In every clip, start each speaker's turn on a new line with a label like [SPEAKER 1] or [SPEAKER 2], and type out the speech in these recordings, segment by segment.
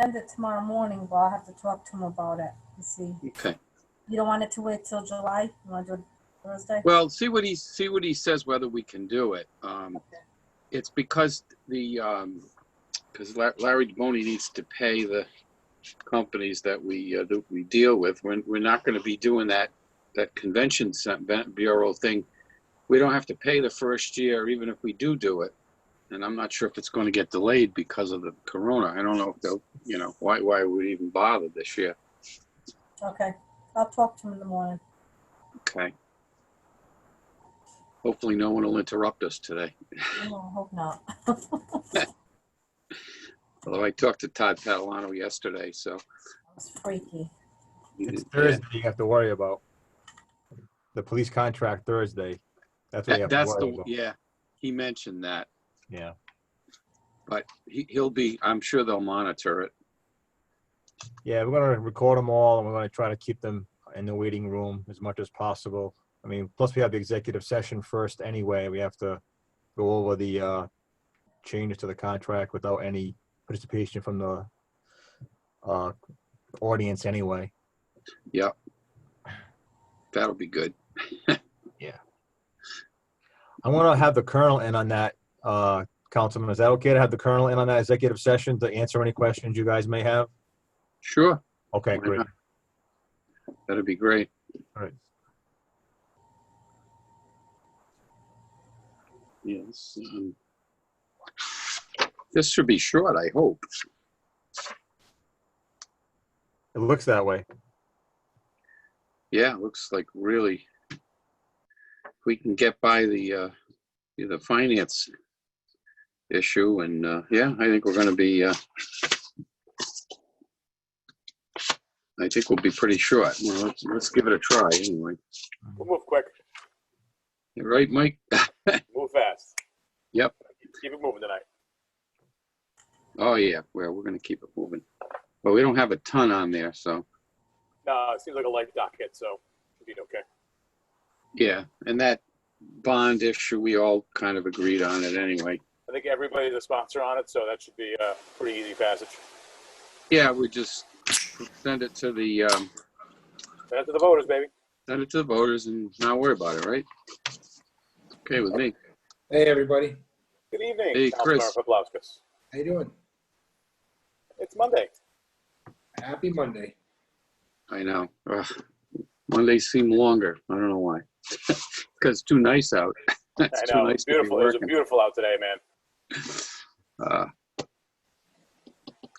[SPEAKER 1] send it tomorrow morning, but I'll have to talk to him about it and see.
[SPEAKER 2] Okay.
[SPEAKER 1] You don't want it to wait till July? You want to do it Thursday?
[SPEAKER 2] Well, see what he, see what he says, whether we can do it. Um, it's because the, um, because Larry Boney needs to pay the companies that we, uh, that we deal with. We're, we're not gonna be doing that, that convention cen- bureau thing. We don't have to pay the first year, even if we do do it. And I'm not sure if it's gonna get delayed because of the corona. I don't know if they'll, you know, why, why would even bother this year?
[SPEAKER 1] Okay, I'll talk to him in the morning.
[SPEAKER 2] Okay. Hopefully, no one will interrupt us today.
[SPEAKER 1] No, I hope not.
[SPEAKER 2] Although I talked to Todd Catalano yesterday, so.
[SPEAKER 1] It's freaky.
[SPEAKER 3] It's
[SPEAKER 2] Yeah.
[SPEAKER 3] Thursday you have to worry about. The police contract Thursday. That's what you
[SPEAKER 2] That-
[SPEAKER 3] have to
[SPEAKER 2] That's
[SPEAKER 3] worry
[SPEAKER 2] the,
[SPEAKER 3] about.
[SPEAKER 2] yeah, he mentioned that,
[SPEAKER 3] Yeah.
[SPEAKER 2] but he, he'll be, I'm sure they'll monitor it.
[SPEAKER 3] Yeah, we're gonna record them all and we're gonna try to keep them in the waiting room as much as possible. I mean, plus we have the executive session first anyway. We have to go over the uh changes to the contract without any participation from the uh audience anyway.
[SPEAKER 2] That'll be good.
[SPEAKER 3] I want to have the colonel in on that, uh, Councilman. Is that okay to have the colonel in on that executive session to answer any questions you guys may have?
[SPEAKER 2] Sure,
[SPEAKER 3] Okay, great.
[SPEAKER 2] that'll be great.
[SPEAKER 3] All right.
[SPEAKER 2] Yes. um, This should be short, I hope.
[SPEAKER 3] It looks that way.
[SPEAKER 2] Yeah, looks like really, if we can get by the, uh, the finance issue and, uh, yeah, I think we're gonna be, uh, I think we'll be pretty short. Well, let's, let's give it a try anyway.
[SPEAKER 4] We'll move quick,
[SPEAKER 2] You Right, Mike?
[SPEAKER 4] move fast.
[SPEAKER 2] Yep.
[SPEAKER 4] Keep it moving tonight.
[SPEAKER 2] Oh, yeah, well, we're gonna keep it moving. But we don't have a ton on there, so,
[SPEAKER 4] No, it seems like a light docket, so we did okay.
[SPEAKER 2] yeah. And that bond issue, we all kind of agreed on it anyway.
[SPEAKER 4] I think everybody's a sponsor on it, so that should be a pretty easy passage.
[SPEAKER 2] Yeah, we just send it to the, um,
[SPEAKER 4] Send it to the voters, baby.
[SPEAKER 2] send it to the voters and not worry about it, right? Okay with me.
[SPEAKER 5] Hey, everybody.
[SPEAKER 4] Good evening,
[SPEAKER 2] Hey,
[SPEAKER 4] Councilmember
[SPEAKER 2] Chris.
[SPEAKER 4] Paplowskis.
[SPEAKER 5] How you doing?
[SPEAKER 4] It's Monday.
[SPEAKER 5] Happy Monday.
[SPEAKER 2] I know. Ugh. Mondays seem longer. I don't know why. Because it's too nice out. It's
[SPEAKER 4] I
[SPEAKER 2] too
[SPEAKER 4] know,
[SPEAKER 2] nice
[SPEAKER 4] it's
[SPEAKER 2] to be
[SPEAKER 4] beautiful. It was
[SPEAKER 2] working.
[SPEAKER 4] beautiful out today, man.
[SPEAKER 2] Uh,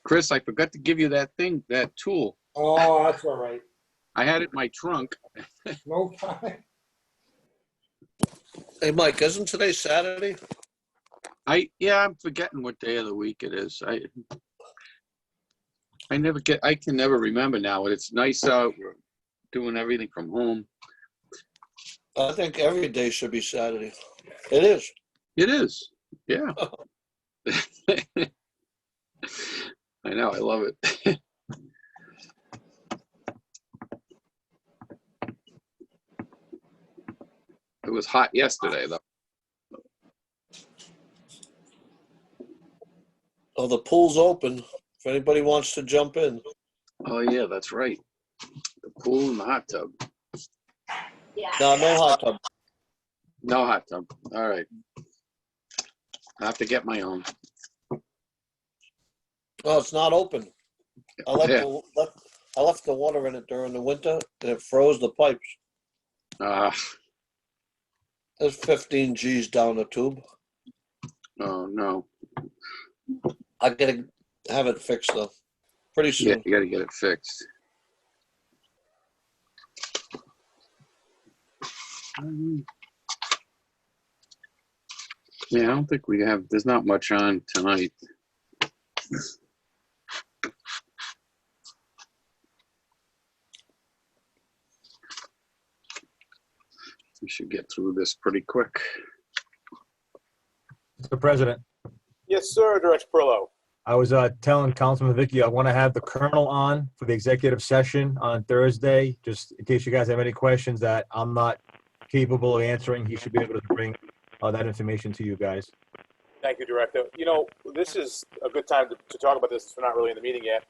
[SPEAKER 2] Chris, I forgot to give you that thing, that tool.
[SPEAKER 5] Oh, that's all right.
[SPEAKER 2] I had it in my trunk.
[SPEAKER 5] No problem.
[SPEAKER 6] Hey, Mike, isn't today Saturday?
[SPEAKER 2] I, yeah, I'm forgetting what day of the week it is. I, I never get, I can never remember now. It's nice out. We're doing everything from home.
[SPEAKER 6] I think every day should be Saturday. It is.
[SPEAKER 2] It is, yeah. Oh. I know, I love it. It was hot yesterday, though.
[SPEAKER 6] Oh, the pool's open if anybody wants to jump in.
[SPEAKER 2] Oh, yeah, that's right. The pool and the hot tub.
[SPEAKER 6] No, no hot tub.
[SPEAKER 2] No hot tub, all right. I have to get my own.
[SPEAKER 6] No, it's not open. I left,
[SPEAKER 2] Yeah.
[SPEAKER 6] the, left, I left the water in it during the winter and it froze the pipes.
[SPEAKER 2] Uh,
[SPEAKER 6] There's 15 G's down the tube.
[SPEAKER 2] oh, no.
[SPEAKER 6] I gotta have it fixed though. Pretty
[SPEAKER 2] Yeah,
[SPEAKER 6] soon.
[SPEAKER 2] you gotta get it fixed.
[SPEAKER 6] Mm-hmm.
[SPEAKER 2] Um, Yeah, I don't think we have, there's not much on tonight. We should get through this pretty quick.
[SPEAKER 3] Mr. President,
[SPEAKER 4] Yes, sir, Director Perillo.
[SPEAKER 3] I was uh, telling Councilman Vicky, I want to have the colonel on for the executive session on Thursday, just in case you guys have any questions that I'm not capable of answering. He should be able to bring uh, that information to you guys.
[SPEAKER 4] Thank you, Director. You know, this is a good time to, to talk about this. We're not really in the meeting yet.